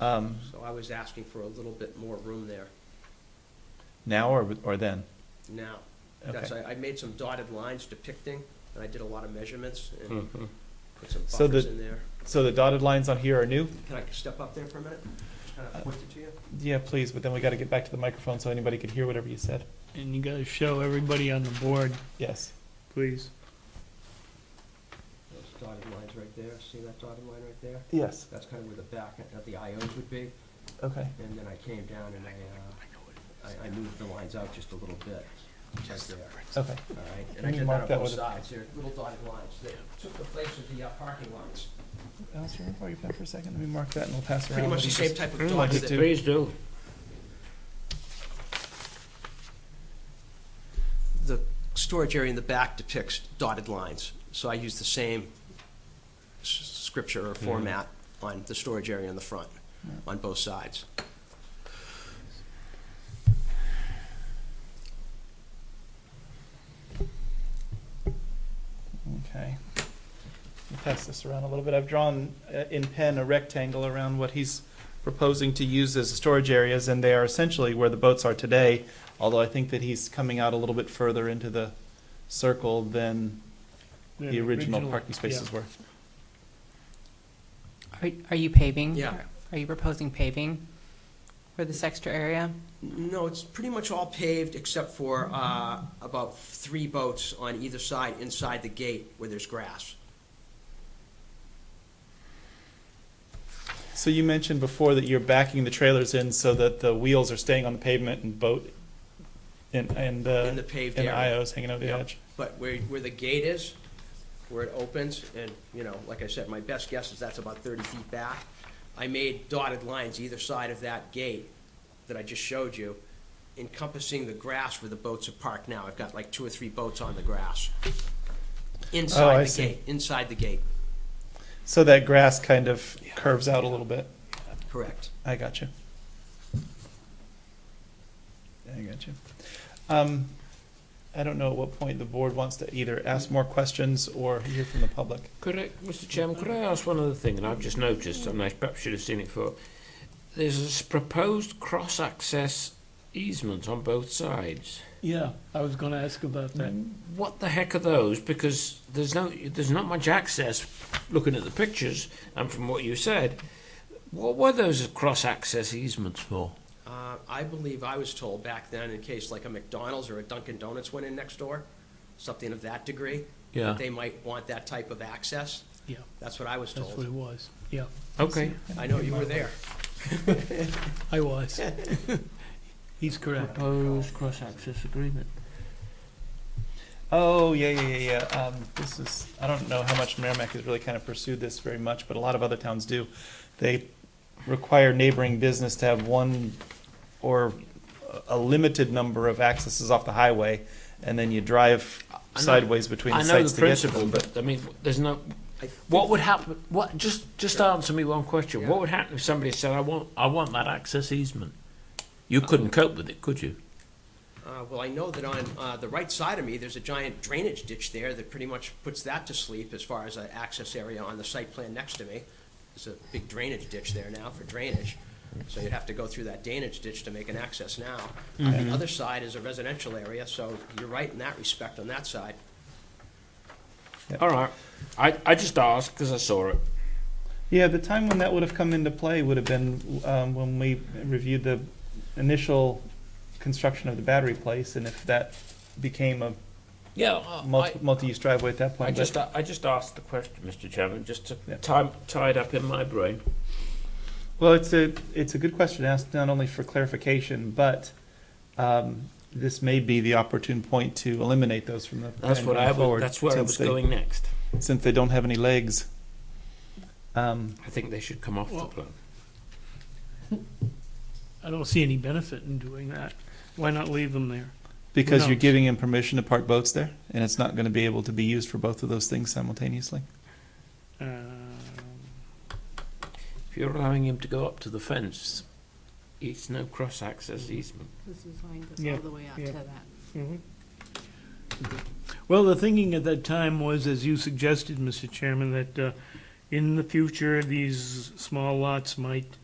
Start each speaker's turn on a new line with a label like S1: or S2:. S1: Um,
S2: So I was asking for a little bit more room there
S1: now or, or then?
S2: now. That's,
S1: Okay.
S2: I, I made some dotted lines depicting, and I did a lot of measurements and put some
S1: Hmm. So
S2: buffers
S1: the-
S2: in there.
S1: So the dotted lines on here are new?
S2: Can I step up there for a minute? Just kind
S1: Uh,
S2: of point it to you?
S1: Yeah, please, but then we gotta get back to the microphone so anybody could hear whatever you said.
S3: And you gotta show everybody on the board,
S1: Yes.
S3: please.
S2: Those dotted lines right there, see that dotted line right there?
S1: Yes.
S2: That's kind of where the back of the IOs would be,
S1: Okay.
S2: and then I came down and I, uh, I, I moved the lines out just a little bit, right there,
S1: Okay.
S2: all right?
S1: Can
S2: And I
S1: you
S2: did
S1: mark
S2: that on
S1: that
S2: both
S1: with a-
S2: sides, there, little dotted lines, that took the place of the uh, parking lines.
S1: Alistair, where are you been for a second? Let me mark that and we'll pass around.
S2: Pretty much
S1: what
S2: the
S1: you
S2: same
S1: just-
S2: type of
S1: like
S2: dots
S1: it
S2: that
S1: too.
S4: Please do.
S2: the storage area in the back depicts dotted lines, so I use the same s- scripture or format on the storage area in the front,
S1: Yeah.
S2: on both sides.
S1: Okay. Let me Pass this around a little bit. I've drawn uh, in pen a rectangle around what he's proposing to use as storage areas, and they are essentially where the boats are today, although I think that he's coming out a little bit further into the circle than the original parking spaces were.
S5: Are, are you paving?
S2: Yeah.
S5: Are you proposing paving for this extra area?
S2: No, it's pretty much all paved except for uh, about three boats on either side inside the gate where there's grass.
S1: So you mentioned before that you're backing the trailers in so that the wheels are staying on the pavement and boat and and uh,
S2: In the paved
S1: and
S2: area.
S1: IOs hanging over the
S2: Yep.
S1: edge.
S2: But where, where the gate is, where it opens, and, you know, like I said, my best guess is that's about thirty feet back. I made dotted lines either side of that gate that I just showed you, encompassing the grass where the boats are parked now. I've got like two or three boats on the grass.
S1: I
S3: Oh,
S2: Inside the
S1: see.
S2: gate, inside the gate,
S1: So that grass kind of curves out a little bit.
S2: correct.
S1: I got you. I got you. Um, I don't know at what point the board wants to either ask more questions or hear from the public.
S4: Could I, Mr. Chairman, could I ask one other thing? And I've just noticed, and I perhaps should have seen it before. There's this proposed cross-access easement on both sides.
S3: Yeah, I was gonna ask about that.
S4: What the heck are those? Because there's no, there's not much access. Looking at the pictures and from what you said, what were those cross-access easements for?
S2: Uh, I believe I was told back then, in case like a McDonald's or a Dunkin' Donuts went in next door, something of that degree,
S4: Yeah.
S2: they might want that type of access.
S1: Mm-hmm.
S3: Yeah,
S2: That's what I was
S3: that's what
S2: told.
S3: it was. Yeah,
S4: Okay.
S2: I know you were there.
S3: I was. He's correct.
S4: Proposed cross-access agreement.
S1: Oh, yeah, yeah, yeah, yeah. Um, this is, I don't know how much Merrimack has really kind of pursued this very much, but a lot of other towns do. They require neighboring business to have one or a limited number of accesses off the highway, and then you drive
S4: know-
S1: sideways between
S4: I
S1: the
S4: know
S1: sites
S4: the
S1: to get to
S4: principle,
S1: them.
S4: but I mean, there's no.
S2: I
S4: What would happen? What just just answer me one question.
S2: Yeah.
S4: What would happen if somebody said, "I want I want that access easement"? You couldn't cope with it, could you?
S2: Uh, well, I know that on uh, the right side of me, there's a giant drainage ditch there that pretty much puts that to sleep as far as an access area on the site plan next to me. There's a big drainage ditch there now for drainage, so you'd have to go through that drainage ditch to make an access now. On the other side is a residential area, so you're right in that respect on that side.
S4: All right. I, I just asked because I saw it.
S1: Yeah, the time when that would have come into play would have been um, when we reviewed the initial construction of the battery place, and if that became a
S4: Yeah. Uh, I-
S1: multi- multi-use driveway at that
S4: I, I
S1: point.
S4: just
S1: But
S4: a- I just asked the question, Mr. Chairman, just to
S1: Yeah.
S4: tie, tie it up in my brain.
S1: Well, it's a, it's a good question to ask, not only for clarification, but um, this may be the opportune point to eliminate those from the.
S4: That's
S1: plan
S4: what
S1: going
S4: I was,
S1: forward,
S4: That's where I
S1: since
S4: was
S1: they-
S4: going next.
S1: Since they don't have any legs. Um,
S4: I think they should come off
S3: Well-
S4: the plan.
S3: I don't see any benefit in doing that. Why not leave them there?
S1: Because you're
S3: knows?
S1: giving him permission to park boats there, and it's not going to be able to be used for both of those things simultaneously.
S3: Um,
S4: If you're allowing him to go up to the fence, it's no cross access easement.
S5: This is line goes
S3: Yeah,
S5: all the way up
S3: yeah.
S5: to that.
S3: Well, the thinking at that time was, as you suggested, Mr. Chairman, that uh, in the future, these small lots might